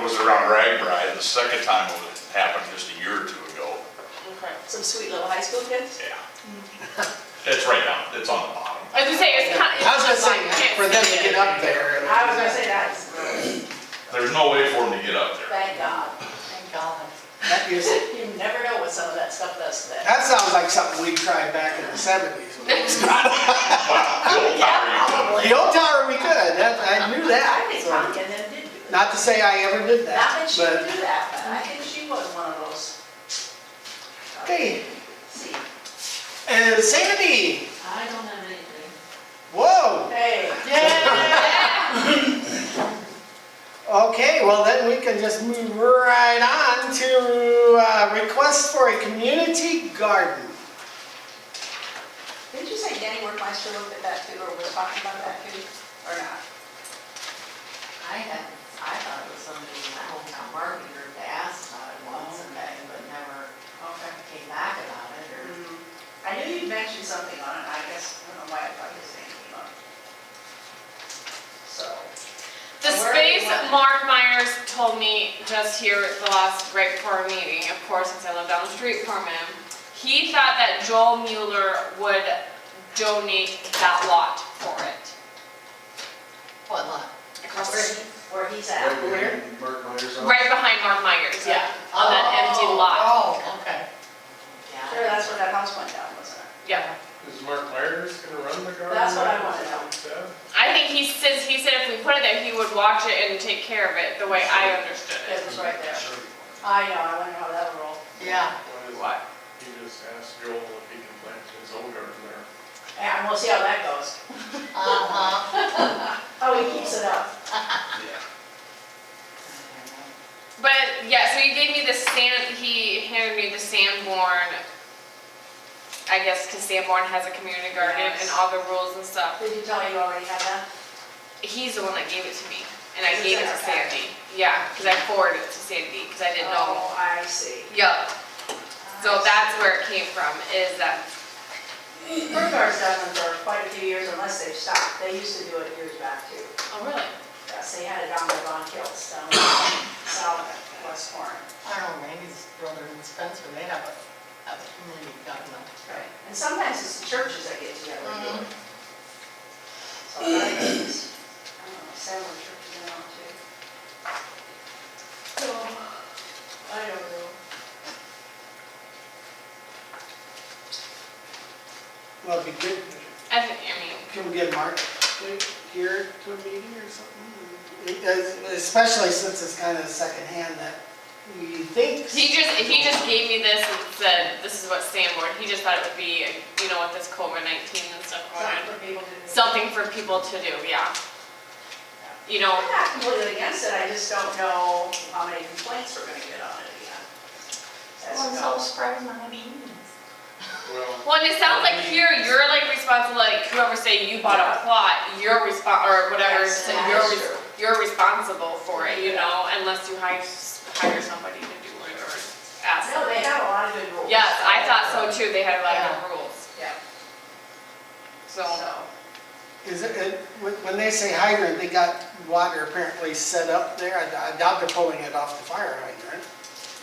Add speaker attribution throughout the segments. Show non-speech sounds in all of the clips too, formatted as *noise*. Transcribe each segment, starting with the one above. Speaker 1: was around Ragbri, the second time it happened just a year or two ago.
Speaker 2: Okay.
Speaker 3: Some sweet little high school kids?
Speaker 1: Yeah. It's right down, it's on the bottom.
Speaker 2: I was gonna say, it's kind of.
Speaker 4: I was gonna say, for them to get up there.
Speaker 3: I was gonna say that.
Speaker 1: There's no way for them to get up
Speaker 3: *laughs*
Speaker 1: there.
Speaker 3: Thank God, thank God.
Speaker 4: That is,
Speaker 3: You never know what some of that stuff does to them.
Speaker 4: that sounds like something we tried back in the seventies.
Speaker 1: Wow, the old tower, you
Speaker 4: The old tower, we could, that, I knew
Speaker 3: I
Speaker 4: that.
Speaker 3: think
Speaker 4: so-
Speaker 3: Tanya then did do that.
Speaker 4: Not to say I ever did
Speaker 3: Not that
Speaker 4: that,
Speaker 3: she would
Speaker 4: but,
Speaker 3: do that, but I think she was one of those.
Speaker 4: okay,
Speaker 3: See,
Speaker 4: and Sandy,
Speaker 5: I don't have anything.
Speaker 4: whoa.
Speaker 3: Hey,
Speaker 4: Okay, well then we can just move right on to, uh, request for a community garden.
Speaker 3: didn't you say Danny Workmeister looked at that too, or was talking about that too, or not?
Speaker 5: I had, I thought it was somebody in my hometown marketer that asked about it once
Speaker 2: Oh.
Speaker 5: and then, but never
Speaker 3: Okay.
Speaker 5: came back about it or.
Speaker 3: Hmm. I knew you'd mentioned something on it, I guess, I don't know why I thought you said anything on it. So,
Speaker 2: The
Speaker 3: Where do you
Speaker 2: space
Speaker 3: want it?
Speaker 2: Mark Myers told me just here at the last, right before our meeting, of course, since I live down the street from him, he thought that Joel Mueller would donate that lot for it. Mm-hmm.
Speaker 5: What, look?
Speaker 3: where, where he's at.
Speaker 4: Where?
Speaker 6: Mark Myers on.
Speaker 2: Right behind Mark Myers, yeah, on Oh, that empty lot,
Speaker 5: Oh, okay.
Speaker 3: Sure,
Speaker 5: Yeah.
Speaker 3: that's where that house went down, wasn't it?
Speaker 2: yeah.
Speaker 6: Is Mark Myers gonna run the garden?
Speaker 3: That's what I
Speaker 6: want
Speaker 3: wanna know.
Speaker 2: I think he says, he said if we put it there, he would watch it and take care of it, the way I understood
Speaker 3: It
Speaker 2: it.
Speaker 3: was right there. I know, I wonder how that'll roll.
Speaker 5: Yeah.
Speaker 2: What?
Speaker 6: He just asked Joel if he can plant his own garden there.
Speaker 3: And we'll see how that goes.
Speaker 5: Uh-huh.
Speaker 3: Oh, he keeps it up.
Speaker 2: But yeah, so he gave me the sand. He handed me the Sanborn. I guess because Sanborn has a community garden and
Speaker 3: Yes.
Speaker 2: all the rules and stuff.
Speaker 3: Did you tell you already had that?
Speaker 2: He's the one that gave it to me, and I
Speaker 3: Is it
Speaker 2: gave it
Speaker 3: in
Speaker 2: to
Speaker 3: our packet?
Speaker 2: Sandy. Yeah, because I forwarded it to Sandy because I didn't know.
Speaker 3: Oh, I see.
Speaker 2: Yup. So that's where it came from. Is that
Speaker 3: Burghart's done them for quite a few years unless they've stopped. They used to do it years back too.
Speaker 2: oh really?
Speaker 3: Yes, they had it down there on Kills, down south of West Warren.
Speaker 5: I don't know, maybe his brother and Spencer, they have a, have a community garden up there.
Speaker 3: And sometimes it's the churches that get together and
Speaker 2: Mm-hmm.
Speaker 3: do it. So I think it's, I don't know, several churches in on too. So, I don't know.
Speaker 4: Well, it'd be good,
Speaker 2: I think. I mean,
Speaker 4: can we get Mark here to a meeting or something? Because- Especially since it's kind of secondhand that we think.
Speaker 2: he just he just gave me this and said this is what Sanborn. He just thought it would be you know with this COVID nineteen and stuff
Speaker 3: Something for people
Speaker 2: going on.
Speaker 3: to do.
Speaker 2: something for people to do, yeah. You know,
Speaker 3: I'm not completely against it, I just don't know how many complaints we're gonna get on it again. That's all.
Speaker 5: spreading my beans.
Speaker 6: Well,
Speaker 2: well, and it sounds like here, you're like responsible, like whoever say you bought a plot, you're respon or whatever,
Speaker 3: Yes,
Speaker 2: so
Speaker 3: that
Speaker 2: you're,
Speaker 3: is
Speaker 2: res-
Speaker 3: true.
Speaker 2: you're responsible for it, you know, unless you hire, s- hire somebody to do it or ask.
Speaker 3: No, they have a lot of good rules.
Speaker 2: Yes, I thought so too, they had a lot of good rules,
Speaker 3: Yeah,
Speaker 2: so.
Speaker 3: so,
Speaker 4: Is it- it, when when they say hydrant, they got water apparently set up there. I I doubt they're pulling it off the fire hydrant.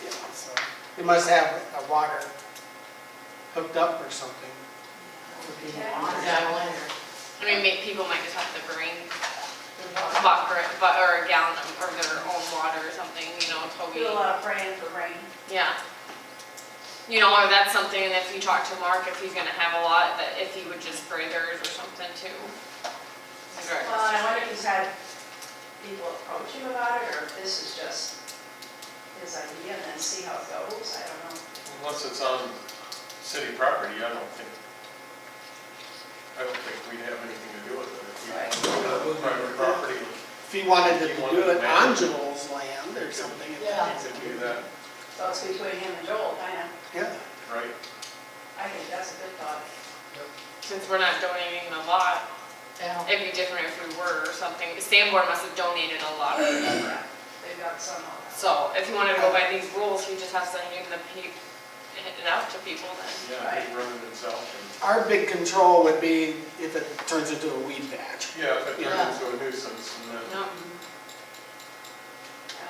Speaker 4: You know, so They must have a water hooked up or something. Would be-
Speaker 5: Yeah, I wonder.
Speaker 2: I mean, make, people might just have to bring a bucket, but, or a gallon of- or their own water or something, you know, till we.
Speaker 3: do a lot of praying for rain.
Speaker 2: Yeah. You know, or that's something, and if you talk to Mark, if he's gonna have a lot, that if he would just spray theirs or something too.
Speaker 3: Well, and I wonder if he's had people approach him about it, or if this is just his idea and then see how it goes, I don't know.
Speaker 6: unless it's on city property, I don't think, I don't think we have anything to do with it. If we own it on private property,
Speaker 4: If he wanted to do it on Joel's land or something. it-
Speaker 5: Yeah.
Speaker 6: we could do that,
Speaker 3: So it's between him and Joel, kind of,
Speaker 4: Yeah.
Speaker 6: right?
Speaker 3: I think that's a good thought.
Speaker 2: Since we're not donating a lot,
Speaker 5: Yeah.
Speaker 2: it'd be different if we were or something. Sanborn must have donated a lot, or whatever.
Speaker 3: They've got some on that.
Speaker 2: so if you wanted to go by these rules, he just has to hand the pe- hand it out to people then.
Speaker 6: Yeah, he run it himself
Speaker 4: Our big control would be if it turns into a weed patch.
Speaker 6: and, yeah, if it turns into a nuisance and then
Speaker 2: No,